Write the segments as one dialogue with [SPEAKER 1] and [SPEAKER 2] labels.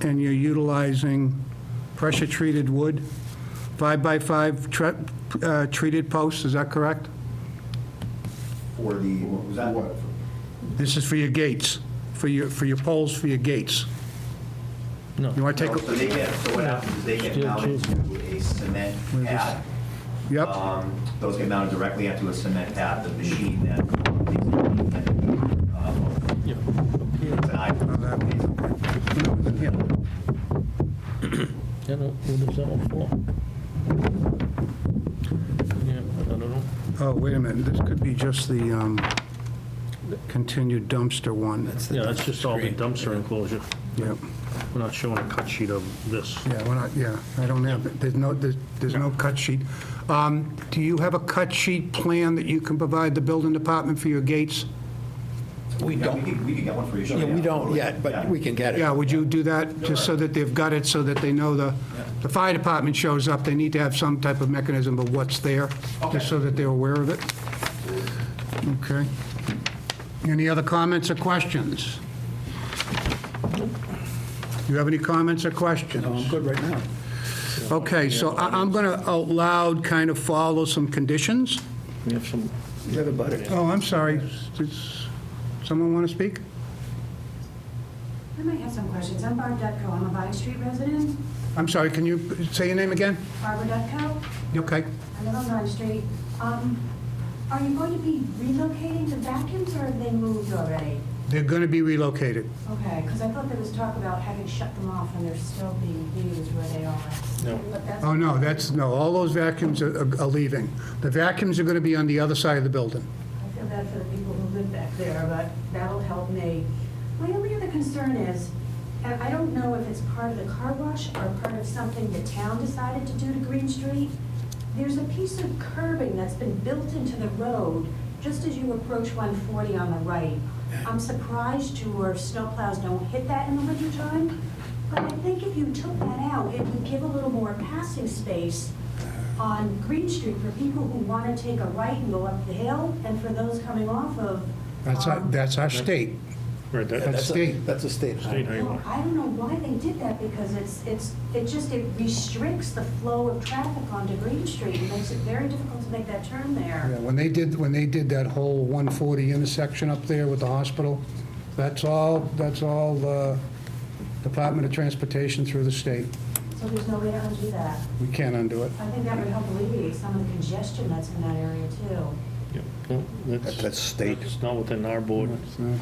[SPEAKER 1] and you're utilizing pressure-treated wood, five-by-five tre- uh, treated posts, is that correct?
[SPEAKER 2] for the, what was that?
[SPEAKER 1] This is for your gates, for your, for your poles, for your gates.
[SPEAKER 3] No.
[SPEAKER 1] You want to
[SPEAKER 2] No,
[SPEAKER 1] take,
[SPEAKER 2] So they get, so what happens is they get mounted to a cement
[SPEAKER 1] a-
[SPEAKER 2] pad.
[SPEAKER 1] yep,
[SPEAKER 2] Um, Those get mounted directly onto a cement pad, the machine that uh, takes the independent, um,
[SPEAKER 3] Yeah.
[SPEAKER 2] it's an iPhone.
[SPEAKER 1] yeah.
[SPEAKER 3] Yeah, no, what is that one for? Yeah, I don't know.
[SPEAKER 1] Oh, wait a minute, this could be just the um, continued dumpster one.
[SPEAKER 3] Yeah, that's just all the dumpster enclosure.
[SPEAKER 1] Yep,
[SPEAKER 3] We're not showing a cut sheet of this.
[SPEAKER 1] yeah, we're not, yeah, I don't have, it. there's no, there's there's no cut sheet. Um, Do you have a cut sheet plan that you can provide the building department for your gates?
[SPEAKER 4] We
[SPEAKER 2] Yeah, we
[SPEAKER 4] don't,
[SPEAKER 2] can, we can get one for you. sure,
[SPEAKER 4] yeah, we don't
[SPEAKER 2] totally.
[SPEAKER 4] yet, but
[SPEAKER 2] Yeah.
[SPEAKER 4] we can get it.
[SPEAKER 1] Yeah, would you do that, just so that they've got it, so that they know the, the fire department shows up, they need to have some type of mechanism of what's there, just so that they're aware of it? Okay. Any other comments or questions? You have any comments or questions?
[SPEAKER 4] I'm good right now.
[SPEAKER 1] Okay, so I- I'm going to out loud kind of follow some conditions.
[SPEAKER 3] We have some,
[SPEAKER 4] You have a butter.
[SPEAKER 1] Oh, I'm sorry, does someone want to speak?
[SPEAKER 5] I might have some questions. I'm Barb Dutko. I'm a Vine Street resident.
[SPEAKER 1] I'm sorry, can you say your name again?
[SPEAKER 5] Barbara Dutko.
[SPEAKER 1] Okay.
[SPEAKER 5] I live on Vine Street. Um, Are you going to be relocating the vacuums or have they moved already?
[SPEAKER 1] They're going to be relocated.
[SPEAKER 5] Okay, because I thought there was talk about having shut them off and they're still being used where they are. No. But that's,
[SPEAKER 1] Oh, no, that's, no, all those vacuums are are leaving. The vacuums are going to be on the other side of the building.
[SPEAKER 5] I feel bad for the people who live back there, but that'll help me. My only other concern is, and I don't know if it's part of the car wash or part of something the town decided to do to Green Street. There's a piece of curbing that's been built into the road just as you approach 140 on the right. I'm surprised your snowplows don't hit that in the wintertime, but I think if you took that out, it would give a little more passing space on Green Street for people who want to take a right and go up the hill, and for those coming off of.
[SPEAKER 1] That's our,
[SPEAKER 5] um,
[SPEAKER 1] that's our state.
[SPEAKER 3] right,
[SPEAKER 1] That's
[SPEAKER 3] that-
[SPEAKER 4] That's a,
[SPEAKER 1] state.
[SPEAKER 4] that's a state.
[SPEAKER 3] State highway.
[SPEAKER 5] Well, I don't know why they did that, because it's, it's, it just, it restricts the flow of traffic onto Green Street, and makes it very difficult to make that turn
[SPEAKER 1] Yeah,
[SPEAKER 5] there.
[SPEAKER 1] When they did, when they did that whole 140 intersection up there with the hospital, that's all, that's all the Department of Transportation through the state.
[SPEAKER 5] So there's no way to undo that.
[SPEAKER 1] We can't undo it.
[SPEAKER 5] I think that would help alleviate some of the congestion that's in that area too.
[SPEAKER 3] yeah, no,
[SPEAKER 6] That- That's state.
[SPEAKER 3] It's not within our board.
[SPEAKER 1] No,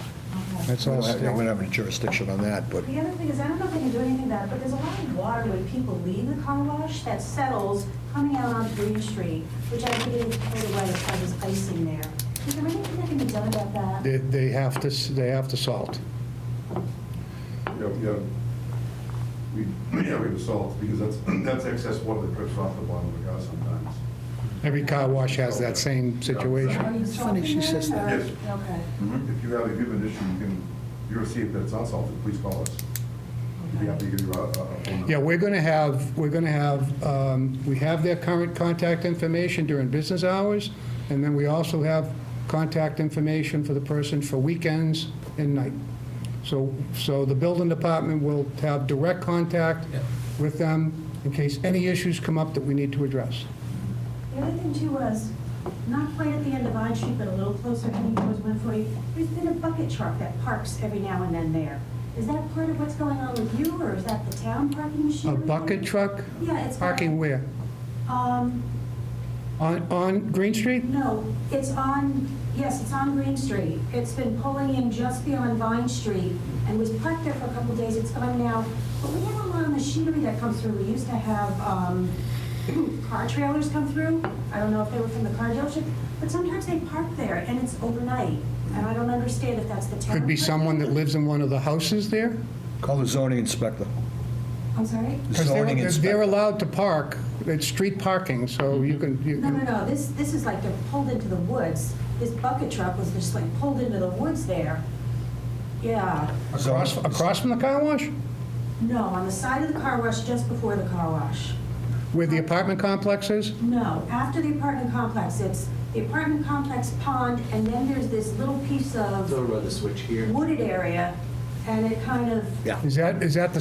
[SPEAKER 5] Okay.
[SPEAKER 1] That's
[SPEAKER 6] We
[SPEAKER 1] all
[SPEAKER 6] don't have- we don't
[SPEAKER 1] state.
[SPEAKER 6] have any jurisdiction on that, but
[SPEAKER 5] The other thing is, I don't know if they can do anything about it, but there's a lot of water when people leave the car wash that settles coming out on Green Street, which I think is totally away if I was icing there. Is there anything that can be done about that?
[SPEAKER 1] They- They have to, s- they have to salt.
[SPEAKER 7] Yeah, we have, we, yeah, we have salt, because that's, that's excess water that drips off the bottom of the car sometimes.
[SPEAKER 1] Every car wash has that same situation.
[SPEAKER 5] Are you
[SPEAKER 4] funny she
[SPEAKER 5] salting
[SPEAKER 4] says
[SPEAKER 5] that,
[SPEAKER 7] that.
[SPEAKER 5] or-
[SPEAKER 7] Yes.
[SPEAKER 5] Okay,
[SPEAKER 7] If you have, if you have an issue, you can, you'll see if it's unsalted, please call us. We'd be happy to give you a, a phone number.
[SPEAKER 1] Yeah, we're going to have, we're going to have, um, we have their current contact information during business hours, and then we also have contact information for the person for weekends and night. So, so the building department will have direct contact with them in case any issues come up that we need to address.
[SPEAKER 5] The other thing too was, not quite at the end of Vine Street, but a little closer heading towards 140, there's been a bucket truck that parks every now and then there. Is that part of what's going on with you, or is that the town parking
[SPEAKER 1] A
[SPEAKER 5] machinery?
[SPEAKER 1] bucket truck
[SPEAKER 5] Yeah, it's.
[SPEAKER 1] parking where?
[SPEAKER 5] Um,
[SPEAKER 1] On, on Green Street?
[SPEAKER 5] No, it's on, yes, it's on Green Street. It's been pulling in just beyond Vine Street and was parked there for a couple days. It's gone now. But we have a lot of machinery that comes through. We used to have um, car trailers come through. I don't know if they were from the car dealership, but sometimes they park there and it's overnight. And I don't understand if that's the town.
[SPEAKER 1] Could be someone that lives in one of the houses there?
[SPEAKER 6] call the zoning inspector.
[SPEAKER 5] I'm sorry?
[SPEAKER 6] The
[SPEAKER 1] Because they're-
[SPEAKER 6] zoning
[SPEAKER 1] They're
[SPEAKER 6] inspector. Mm-hmm.
[SPEAKER 1] allowed to park, it's street parking, so you can, you
[SPEAKER 5] No,
[SPEAKER 1] can
[SPEAKER 5] no, no, this, this is like they're pulled into the woods. This bucket truck was just like pulled into the woods there. Yeah.
[SPEAKER 1] Across, across from the car wash?
[SPEAKER 5] No, on the side of the car wash, just before the car wash.
[SPEAKER 1] Where the apartment complex is?
[SPEAKER 5] No, after the apartment complex, it's the apartment complex pond, and then there's this little piece of
[SPEAKER 4] about the switch here.
[SPEAKER 5] wooded area, and it kind of
[SPEAKER 1] Is that, is that the